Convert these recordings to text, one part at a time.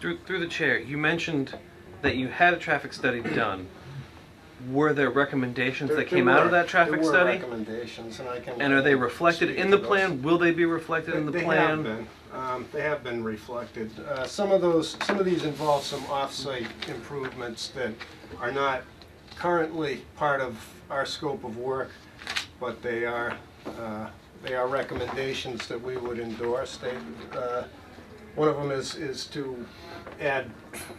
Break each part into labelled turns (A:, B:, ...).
A: through through the chair, you mentioned that you had a traffic study done. Were there recommendations
B: There-
A: that
B: there
A: came out of
B: were-
A: that traffic
B: There were
A: study?
B: recommendations, and I can.
A: And are they reflected
B: speak
A: in the
B: to those.
A: plan? Will they be reflected in the
B: They have
A: plan?
B: been, um, they have been reflected. Uh, Some of those, some of these involve some off-site improvements that are not currently part of our scope of work, but they are, uh, they are recommendations that we would endorse. They, uh, one of them is, is to add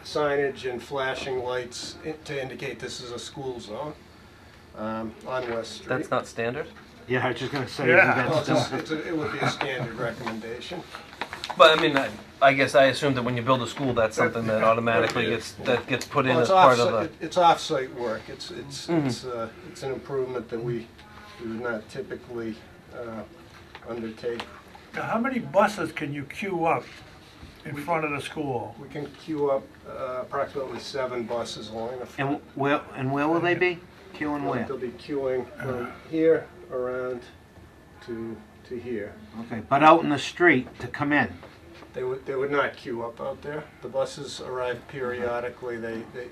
B: signage and flashing lights i- to indicate this is a school zone um, on West Street.
A: That's not standard.
C: Yeah, I was just gonna say,
B: Well, it's-
C: that's just,
B: it's a- It would be a standard recommendation.
A: But I mean, I, I guess I assume that when you build a school, that's something that automatically gets that gets put in
B: Well,
A: as
B: it's
A: part of
B: offsite-
A: the.
B: it- It's off-site work, it's, it's, it's, uh, it's an improvement that we, we would not typically, uh, undertake.
D: Now, how many buses can you queue up in front of the school?
B: We can queue up uh, approximately seven buses along the
C: and
B: front.
C: where, and where will they be? Q and where?
B: They'll be queuing from here around to, to here.
C: Okay, but out in the street to come in.
B: They would, they would not queue up out there. The buses arrive periodically, they, they,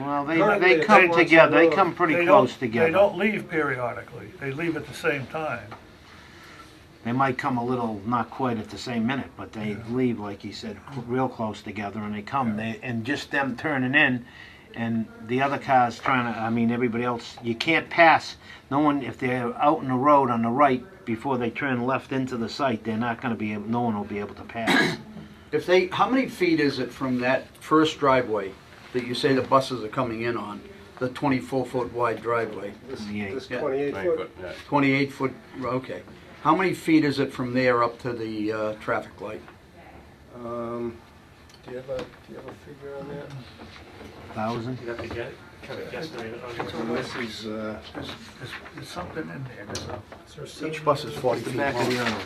C: Well, they,
B: Currently,
C: they
B: it's
C: come
B: once a
C: together, they
B: road.
C: come pretty
D: They don't-
C: close together.
D: They don't leave periodically, they leave at the same time.
C: They might come a little, not quite at the same minute, but they leave, like he said, cl- real close together, and they come. They and just them turning in, and the other cars trying to. I mean, everybody else. You can't pass. No one if they're out in the road on the right before they turn left into the site. They're not going to be. able No one will be able to pass.
E: If they, how many feet is it from that first driveway that you say the buses are coming in on? The twenty-four foot wide driveway,
B: this,
C: Yeah.
B: this
E: Yeah.
B: twenty-eight foot.
E: twenty-eight foot, okay. How many feet is it from there up to the, uh, traffic light?
B: Um, do you have a, do you have a figure on that?
C: Thousand.
F: You'd have to get, kind of guesstimate it on your-
B: This is, uh,
D: There's, there's- there's something in there, there's a-
E: Each bus is forty feet
C: Back of the
E: long.
C: other.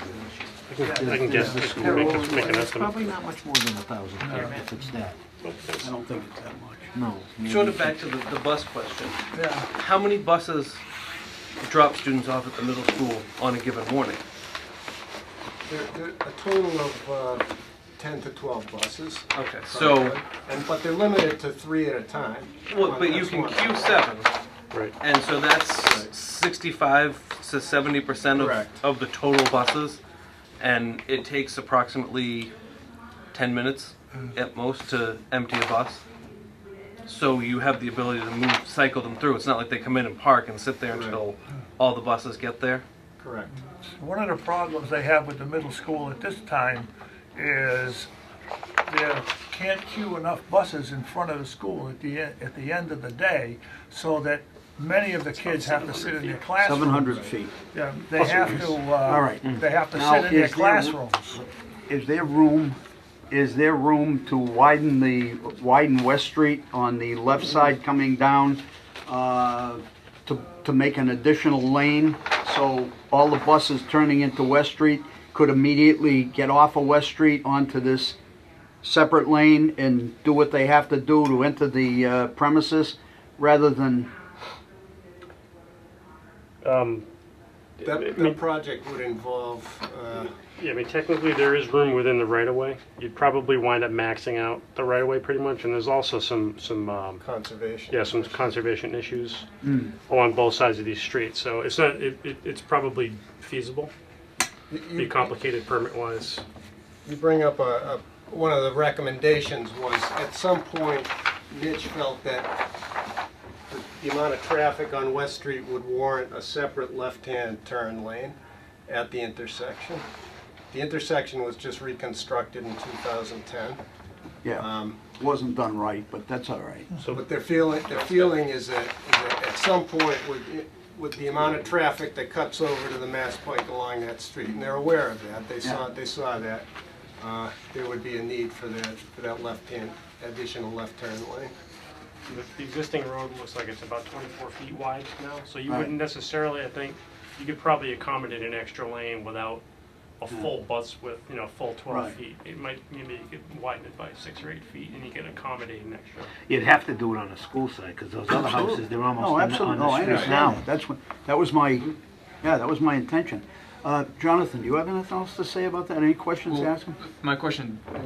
F: I can guess, I can make a- make an estimate.
C: Probably not much more than a thousand if it's that.
E: I don't think it's that much.
C: No.
A: Sort of back to the, the bus question.
D: yeah.
A: How many buses drop students off at the middle school on a given morning?
B: There, there, a total of, uh, ten to twelve buses.
A: Okay, so,
B: And, but they're limited to three at a time.
A: well, but you
B: That's
A: can
B: one.
A: queue seven,
F: Right.
A: and so that's
B: Right.
A: sixty-five to seventy percent of,
B: Correct.
A: of the total buses. And it takes approximately ten minutes
B: Mm.
A: at most to empty a bus. So you have the ability to move, cycle them through. It's not like they come in and park and sit there
B: Right.
A: until all the buses get there.
B: Correct.
D: One of the problems they have with the middle school at this time is they can't queue enough buses in front of the school at the, e- at the end of the day, so that many of the kids have to sit in their classrooms.
E: Seven hundred feet.
D: Yeah, they have to, uh,
E: right.
D: they have to
E: Now,
D: sit in their
E: is there-
D: classrooms.
E: Is there room, is there room to widen the, widen West Street on the left side coming down, uh, to, to make an additional lane? So all the buses turning into West Street could immediately get off of West Street onto this separate lane and do what they have to do to enter the uh, premises, rather than,
F: Um,
B: That, the project would involve, uh,
F: Yeah, I mean, technically, there is room within the right-of-way. You'd probably wind up maxing out the right-of-way pretty much, and there's also some, some, um,
B: conservation.
F: yeah, some conservation issues along both sides of these streets, so it's not, it, it- it's probably feasible,
B: You-
F: be
B: You,
F: complicated permit-wise.
B: you bring up a, a, one of the recommendations was, at some point, Mitch felt that the- the amount of traffic on West Street would warrant a separate left-hand turn lane at the intersection. The intersection was just reconstructed in 2010.
E: yeah,
B: Um,
E: wasn't done right, but that's all right.
F: So,
B: But their feeling, their feeling is that, is that at some point, with, with the amount of traffic that cuts over to the Mass Pike along that street, and they're aware of that, they saw, they saw that, uh, there would be a need for that, for that left-hand, additional left turn lane.
F: the the existing road looks like it's about 24 feet wide now, so you
E: Right.
F: wouldn't necessarily, I think, you could probably accommodate an extra lane without a full bus with, you know, full 12
E: Hmm. Right.
F: feet. It might, maybe you could widen it by six or eight feet, and you could accommodate an extra.
C: You'd have to do it on the school side because those other houses, they're almost
E: No,
C: on the-
E: absolutely,
C: on
E: no,
C: the
E: I
C: street
E: understand.
C: now.
E: that. That's what, that was my, yeah, that was my intention. Uh, Jonathan, do you have anything else to say about that? Any questions to ask him?
G: My question